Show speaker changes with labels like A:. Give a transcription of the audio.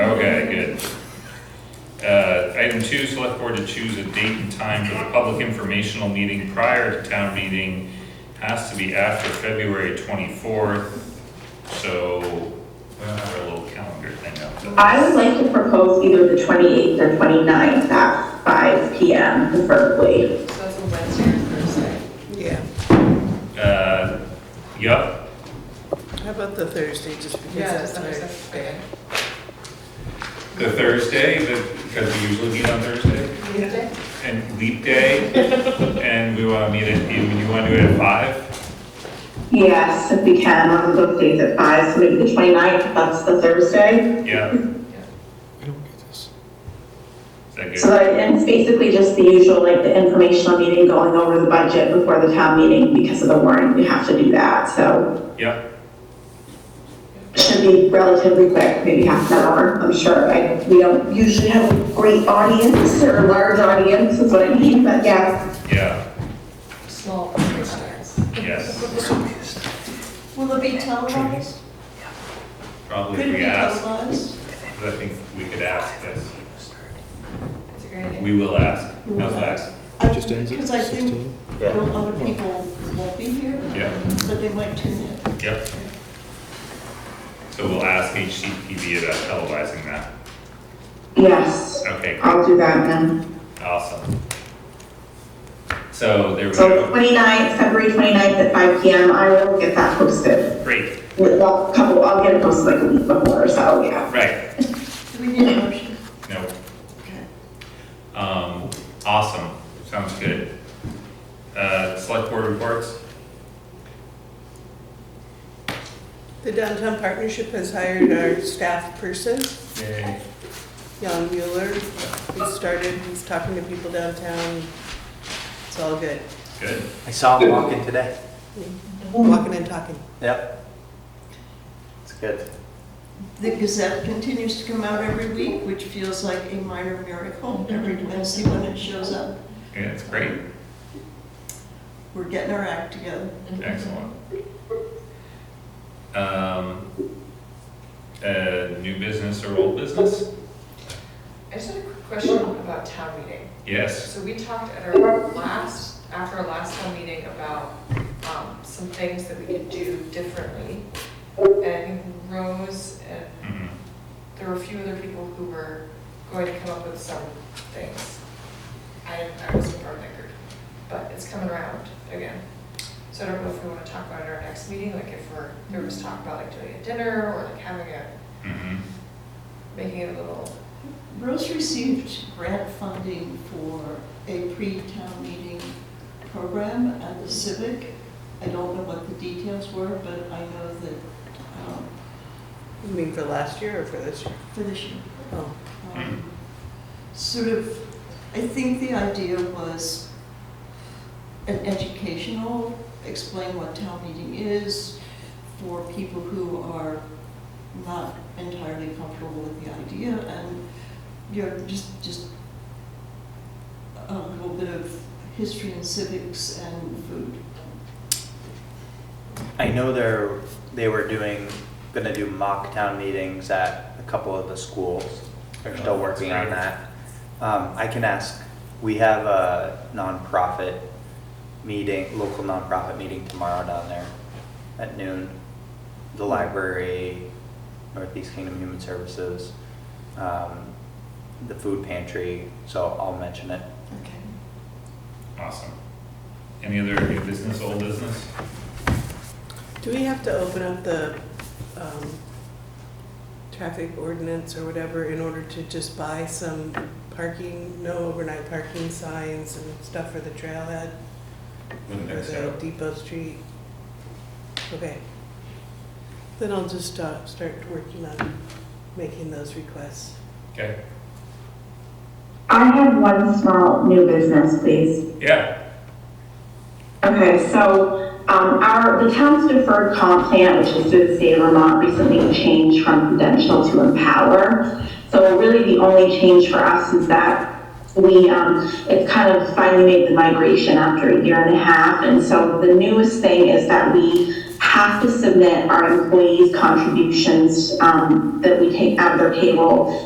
A: Uh, Item two, select board to choose a date and time for the public informational meeting prior to town meeting. Has to be after February twenty-fourth, so our little calendar thing up. so-
B: I would like to propose either the 28th or 29th at 5 PM preferably.
C: So it's a Wednesday or Thursday.
D: Yeah,
A: Uh, yup,
D: how about the Thursday, just
C: Yeah,
D: because that's
C: December
D: our
C: sixth,
D: day?
A: the Thursday, the- because we usually meet on Thursday,
D: Yeah.
C: Tuesday?
A: and leap day, and we wanna meet at, you, you wanna do it at five?
B: Yes, if we can, on those days at 5, so maybe the 29th, if that's the Thursday.
A: Yeah,
E: I don't get this.
A: is that
B: So
A: good?
B: like, and it's basically just the usual, like the informational meeting, going over the budget before the town meeting because of the warrant, we have to do that, so
A: Yep,
B: it should be relatively quick, maybe half an hour, I'm sure. I, we don't usually have a great audience or a large audience is what I mean, but yeah.
A: yeah,
C: Small business.
A: yes,
F: Will it be televised?
A: probably
F: Could
A: if
F: it be
A: we ask,
F: televised?
A: I think we could ask this,
C: That's a great idea.
A: we will ask, how's that?
E: Just ends at
F: Because I think
E: 16.
F: you know, other people won't be here,
A: Yeah.
F: so they might tune in.
A: Yep. So we'll ask HCPV about televising that.
B: Yes,
A: Okay,
B: I'll do that then.
A: awesome. So there we
B: So
A: go.
B: 29th, February 29th at 5 PM, I will get that posted.
A: Great,
B: With a couple, I'll get it posted like a week before, so yeah.
A: right,
F: Do we need a motion?
A: no,
F: Okay.
A: um, awesome, sounds good. Uh, select board reports?
D: The Downtown Partnership has hired our staff person,
A: Yay.
D: Jan Mueller. He started, he's talking to people downtown. It's all good,
A: Good,
G: I saw him walking today.
D: walking and talking.
G: Yep. It's good.
F: The Gazette continues to come out every week, which feels like a minor miracle every
E: Mm-hmm.
F: Wednesday when it shows up.
A: yeah, that's great,
F: We're getting our act together.
A: excellent. Um, uh, new business or old business?
C: I just had a quick question about town meeting.
A: Yes,
C: So we talked at our last, after our last town meeting about um, some things that we could do differently. And I think Rose and
A: mhm,
C: there were a few other people who were going to come up with some things. I, I wasn't part of that group, but it's coming around again. So I don't know if we want to talk about it at our next meeting, like if we're, there was talk about like doing a dinner or like having a,
A: mhm.
C: making it a little,
F: Rose received grant funding for a pre-town meeting program at the Civic. I don't know what the details were, but I know that, um,
D: You mean for last year or for this year?
F: for this year,
D: Oh,
F: um, sort of, I think the idea was an educational, explain what town meeting is for people who are not entirely comfortable with the idea and, you know, just, just a little bit of history and civics and food.
G: I know they're, they were doing, gonna do mock town meetings at a couple of the schools. They're still working on that. Um, I can ask, we have a nonprofit meeting, local nonprofit meeting tomorrow down there at noon. The library, Northeast Kingdom Human Services, um, the food pantry, so I'll mention it.
F: Okay.
A: Awesome. Any other new business, old business?
D: Do we have to open up the um, traffic ordinance or whatever in order to just buy some parking, no overnight parking signs and stuff for the trailhead?
A: Wouldn't
D: Or
A: think
D: the
A: so.
D: Depot Street? Okay. Then I'll just uh, start working on making those requests.
A: Okay,
B: I have one small new business, please.
A: yeah,
B: Okay, so, um, our, the town's deferred comp plan, which is through the state of Vermont, recently changed from prudential to empower. So really the only change for us is that we, um, it's kind of finally made the migration after a year and a half. And so the newest thing is that we have to submit our employees' contributions, um, that we take out of their payroll